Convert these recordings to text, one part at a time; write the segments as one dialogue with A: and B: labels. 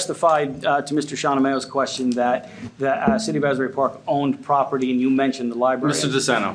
A: testified uh, to Mr. Shawnee's question that the uh, City of Asbury Park owned property, and you mentioned the library.
B: Mr. DeSeno,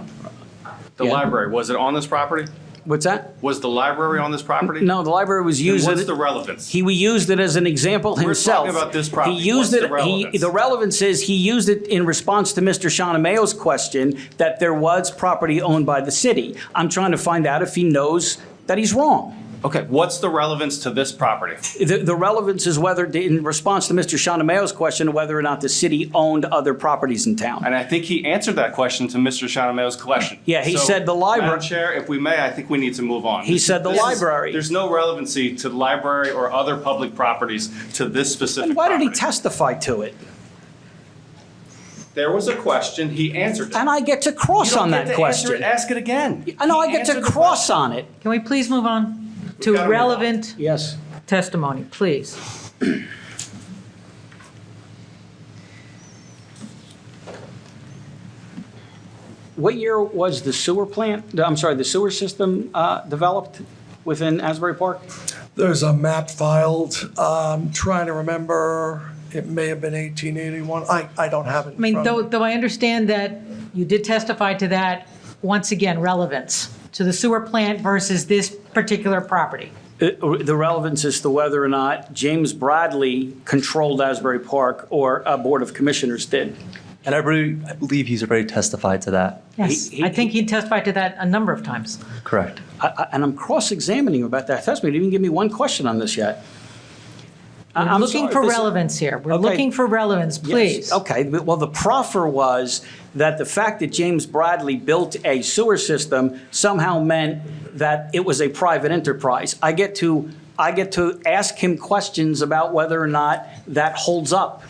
B: the
A: Yeah.
B: library, was it on this property?
A: What's that?
B: Was the library on this property?
A: No, the library was
B: Then
A: used.
B: What's
A: as-
B: the relevance?
A: He used it as an example himself.
B: about this property.
A: He used
B: What's the
A: it. he-
B: relevance?
A: The relevance is he used it in response to Mr. Shawnee's question that there was property owned by the city. I'm trying to find out if he knows that he's wrong.
B: Okay, what's the relevance to this property?
A: The, the relevance is whether, in response to Mr. Shawnee's question, whether or not the city owned other properties in town.
B: And I think he answered that question to Mr. Shawnee's question.
A: Yeah, he
B: So,
A: said the libra-
B: Madam Chair, if we may, I think we need to move on.
A: He said the
B: This is-
A: library.
B: There's no relevancy to the library or other public properties to this specific
A: And why did he
B: property.
A: testify to it?
B: There was a question, he answered it.
A: And I get to
B: You
A: cross
B: don't
A: on
B: get
A: that
B: to answer it,
A: question.
B: Ask it again.
A: I know
B: He
A: I get to
B: answered the
A: cross
B: question.
A: on it.
C: Can we please move on to
B: gotta move on.
C: relevant
A: Yes.
C: testimony, please?
A: What year was the sewer plant, I'm sorry, the sewer system uh, developed within Asbury Park?
D: There's a map filed, um, trying to remember, it may have been 1881, I, I don't have it
C: I
D: in
C: mean,
D: front of
C: though,
D: me.
C: though I understand that you did testify to that, once again, relevance to the sewer plant versus this particular property.
A: Uh, The relevance is to whether or not James Bradley controlled Asbury Park or a Board of Commissioners did.
E: And I believe, I believe he's already testified to that.
C: Yes,
A: He- he-
C: I think he testified to that a number of times.
E: Correct.
A: I- I- And I'm cross-examining about that testimony. You didn't even give me one question on this yet. I-
C: We're
A: I'm
C: looking
A: sorry,
C: for
A: this is-
C: relevance here. We're
A: Okay.
C: looking for relevance,
A: Yes,
C: please.
A: Okay, but- well, the proffer was that the fact that James Bradley built a sewer system somehow meant that it was a private enterprise. I get to, I get to ask him questions about whether or not that holds up.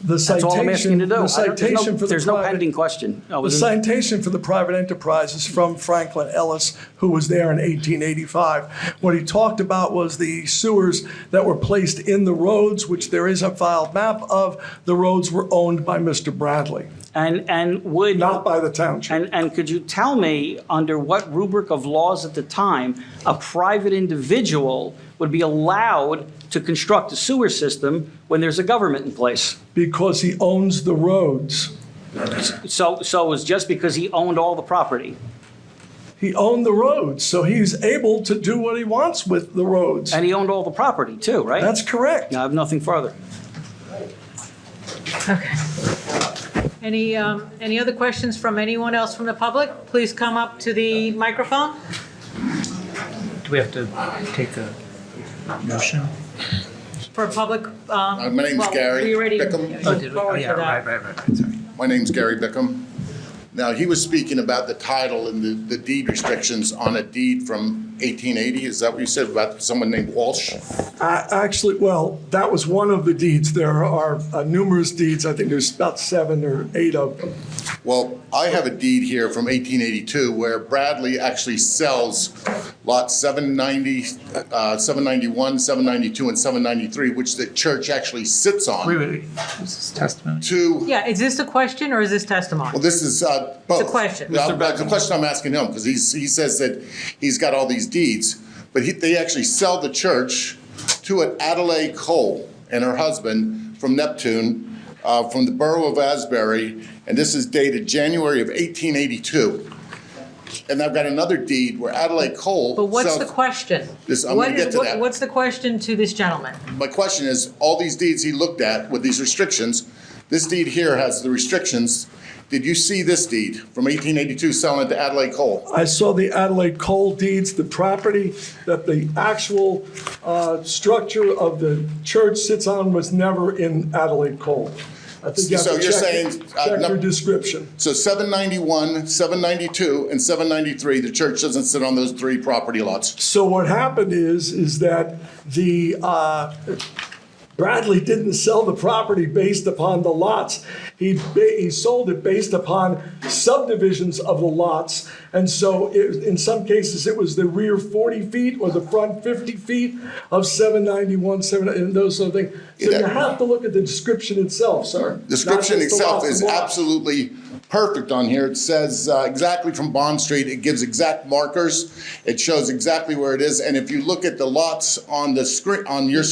D: The
A: That's all I'm asking
D: citation,
A: you to do.
D: the
A: I don't- there's no-
D: citation for the
A: There's no pending
D: private,
A: question. I
D: the
A: was-
D: citation for the private enterprise is from Franklin Ellis, who was there in 1885. What he talked about was the sewers that were placed in the roads, which there is a filed map of, the roads were owned by Mr. Bradley,
A: And, and would.
D: not by the township.
A: And, and could you tell me, under what rubric of laws at the time, a private individual would be allowed to construct a sewer system when there's a government in place?
D: Because he owns the roads.
A: So, so it was just because he owned all the property?
D: He owned the roads, so he's able to do what he wants with the roads.
A: And he owned all the property too, right?
D: That's correct.
A: I have nothing further.
C: Any, um, any other questions from anyone else from the public? Please come up to the microphone.
F: Do we have to take a motion?
C: For public, um.
G: Uh, my name's
C: well,
G: Gary
C: we already
G: Pickham.
F: Oh, did we? Oh,
C: forward
F: yeah,
C: to that.
F: right, right, right, right, sorry.
G: My name's Gary Bickham. Now, he was speaking about the title and the- the deed restrictions on a deed from 1880. Is that what you said about someone named Walsh?
D: I- Actually, well, that was one of the deeds. There are uh, numerous deeds. I think there's about seven or eight of them.
G: Well, I have a deed here from 1882 where Bradley actually sells lot 790, uh, 791, 792, and 793, which the church actually sits
F: Wait,
G: on,
F: wait, wait, this is testimony?
G: to,
C: Yeah, is this a question or is this
G: well,
C: testimony?
G: this is uh, both.
C: question.
G: Uh, but The question I'm asking him, because he's, he says that he's got all these deeds, but he, they actually sell the church to an Adelaide Cole and her husband from Neptune, uh, from the borough of Asbury, and this is dated January of 1882. And I've got another deed where Adelaide Cole.
C: But what's
G: sells-
C: the question?
G: This- I'm
C: What
G: gonna
C: is-
G: get to
C: what-
G: that.
C: What's the question to this gentleman?
G: My question is, all these deeds he looked at with these restrictions, this deed here has the restrictions. Did you see this deed from 1882 selling it to Adelaide Cole?
D: I saw the Adelaide Coal deeds, the property that the actual uh, structure of the church sits on was never in Adelaide Coal. I think you have
G: So
D: to
G: you're
D: check-
G: saying, uh,
D: Check
G: no-
D: your description.
G: So 791, 792, and 793, the church doesn't sit on those three property lots.
D: So what happened is, is that the, uh, Bradley didn't sell the property based upon the lots. He, ba- he sold it based upon subdivisions of the lots. And so it, in some cases, it was the rear 40 feet or the front 50 feet of 791, 7, and those sort of things. So you
G: Yeah.
D: have to look at the description itself, sir. not
G: Description
D: just the
G: itself
D: lots
G: is
D: and lots.
G: absolutely perfect on here. It says uh, exactly from Bond Street, it gives exact markers, it shows exactly where it is, and if you look at the lots on the screen, on your